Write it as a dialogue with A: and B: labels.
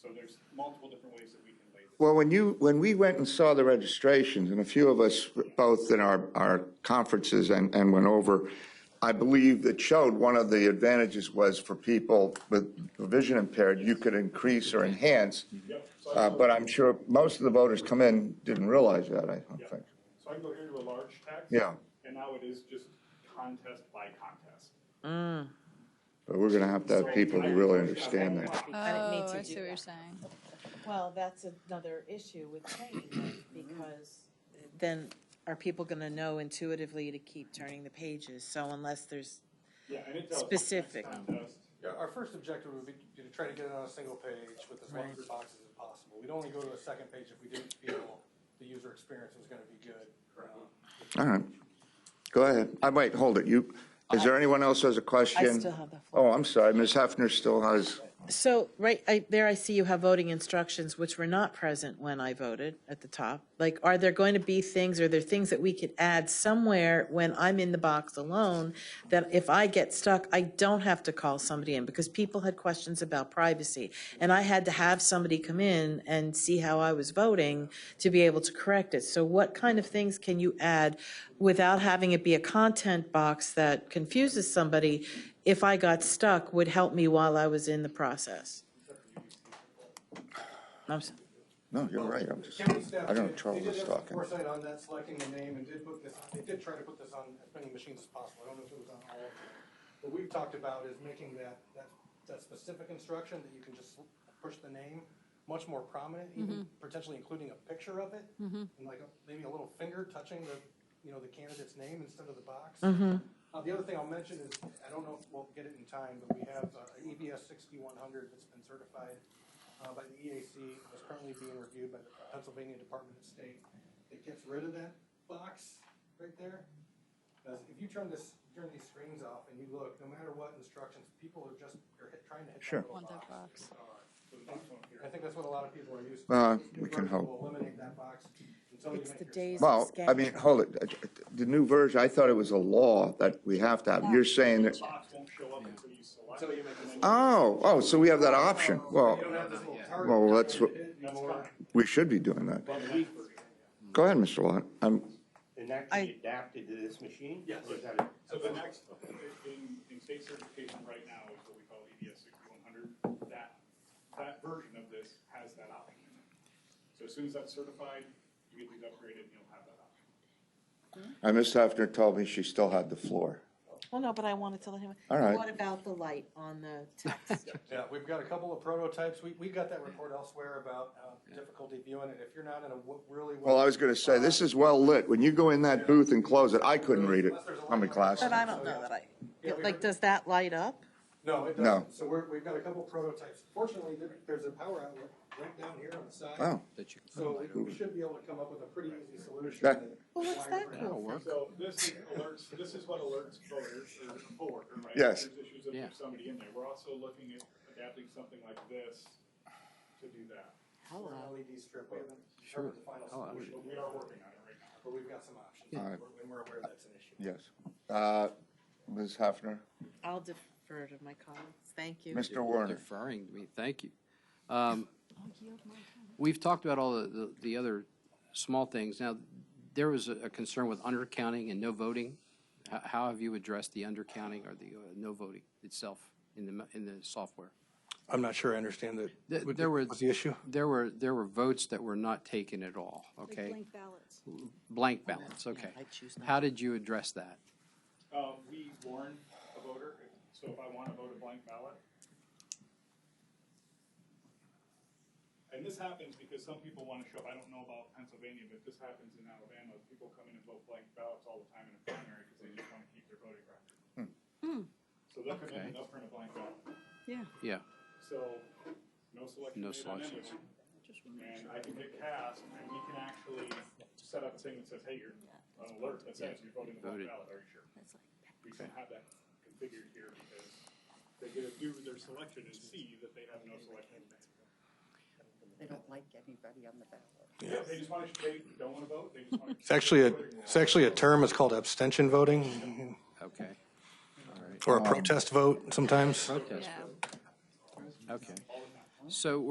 A: So there's multiple different ways that we can lay this.
B: Well, when you, when we went and saw the registrations, and a few of us, both in our, our conferences and, and went over, I believe it showed one of the advantages was for people with vision impaired, you could increase or enhance.
A: Yep. So I
B: Uh,
A: go-
B: but I'm sure most of the voters come in didn't realize that, I
A: yeah.
B: don't think.
A: So I can go here to a large text.
B: Yeah.
A: And now it is just contest by contest.
B: But we're gonna have to have people who really understand that.
C: I
D: Oh,
C: didn't mean
D: I
C: to
D: see
C: do
D: what you're
C: that.
D: saying.
E: Well, that's another issue with changing it, because Mm-hmm. then are people gonna know intuitively to keep turning the pages? So unless there's,
A: Yeah, and it tells. you
E: Specific.
A: next contest.
F: Yeah, our first objective would be to try to get it on a single page with as many boxes as possible. We'd only go to a second page if we didn't feel the user experience was gonna be good. Um,
B: All right. Go ahead. I, wait, hold it. You, is there anyone else who has a question?
E: still have the
B: Oh, I'm sorry. Ms. Hefner still has,
E: so, right, I, there I see you have voting instructions, which were not present when I voted at the top. Like, are there going to be things, are there things that we could add somewhere when I'm in the box alone? That if I get stuck, I don't have to call somebody in, because people had questions about privacy. And I had to have somebody come in and see how I was voting to be able to correct it. So what kind of things can you add without having it be a content box that confuses somebody? If I got stuck, would help me while I was in the process. I'm s-
B: no, you're right. I'm just,
F: County staff
B: I don't have
F: did-
B: trouble
F: They did have some
B: talking.
F: foresight on that, selecting a name, and did put this, they did try to put this on as many machines as possible. I don't know if it was on all of them. What we've talked about is making that, that, that specific instruction that you can just push the name much more prominent, even potentially including a picture of it. And like, a- maybe a little finger touching the, you know, the candidate's name instead of the box. Uh, the other thing I'll mention is, I don't know if we'll get it in time, but we have uh, an EBS sixty-one hundred that's been certified uh, by the EAC, that's currently being reviewed by the Pennsylvania Department of State. It gets rid of that box right there. 'Cause if you turn this, turn these screens off and you look, no matter what instructions, people are just, they're hit- trying to hit
B: Sure.
F: that
D: Want
F: little
D: that
F: box. Uh,
D: box.
F: I think that's what a lot of people are used to.
B: Uh, we can
F: We'll
B: hope.
F: Eliminate that box until you
E: It's
F: make
E: the
F: your-
E: days of
B: Well, I mean,
E: scandal.
B: hold it. uh, The new version, I thought it was a law that we have to have. You're saying that,
A: Box won't show up until you select.
F: Until you make this.
B: oh, oh, so we have that option. Well,
F: You don't have this little target.
B: well, that's what,
A: That's fine.
B: we should be doing that.
G: Well, we-
B: Go ahead, Mr. Lot. I'm,
G: And that can be adapted to this machine?
F: Yes.
G: Or is that a-
A: So the next, in, in state certification right now is what we call EDS sixty-one hundred. That, that version of this has that option in it. So as soon as that's certified, you get these upgraded and you'll have that option.
B: I, Ms. Hefner told me she still had the floor.
E: Well, no, but I wanted to let him.
B: All right.
E: What about the light on the text?
F: Yeah, we've got a couple of prototypes. We, we got that report elsewhere about uh, difficulty viewing it. If you're not in a w- really. uh,
B: Well, I was gonna say, this is well lit. When you go in that booth and close it, I couldn't read it. I'm in class.
E: But I don't know that
F: Yeah,
E: I,
F: we
E: like,
F: heard-
E: does that light up?
F: No, it
B: No.
F: doesn't. So we're, we've got a couple prototypes. Fortunately, there, there's a power outlet right down here on the side.
B: Wow.
F: So we should be able to come up with a pretty easy solution.
B: That-
F: that-
E: Well, what's that
F: Wire-
E: called?
A: So this is alerts, this is what alerts voters or a coworker, right?
B: Yes.
A: If There's issues if there's somebody in there. We're also looking at adapting something like this to do that.
F: Or an LED strip. We haven't determined the final solution,
A: But we are working on it right now.
F: but we've got some options.
B: Alright.
F: We're- And we're aware that's an issue.
B: Yes. Uh, Ms. Hefner,
E: I'll defer to my colleagues, thank you.
B: Mr. Warner.
H: Deferring to me, thank you. Um, We've talked about all the- the, the other small things. Now, there was a a concern with undercounting and no voting. How, how have you addressed the undercounting or the uh, no voting itself in the, mo- in the software?
F: I'm not sure I understand the,
H: Th- There were.
F: was the issue?
H: There were, there were votes that were not taken at all, okay?
D: Blank ballots.
H: Blank ballots, okay.
E: I choose not
H: How did you address that?
A: Uh, we warn a voter, if- so if I want to vote a blank ballot. And this happens because some people want to show up, I don't know about Pennsylvania, but this happens in Alabama, people come in and vote blank ballots all the time in a primary because they just want to keep their voting record. So they'll come in
H: Okay.
A: and they'll print a blank ballot,
D: Yeah.
H: Yeah,
A: so no selection
H: No
A: made on any of
H: selections.
A: them. And I can hit cast, and we can actually set up a thing that says, hey, you're on alert, that says you're voting a blank
H: Voted.
A: ballot, are you sure? We can have that configured here because they get to do their selection and see that they have no selection.
I: They don't like anybody on the ballot.
A: Yeah, they just want to, they don't want to vote, they just want to.
F: It's actually a, it's actually a term, it's called abstention voting,
H: okay,
B: Um,
F: or a protest vote sometimes.
H: okay. So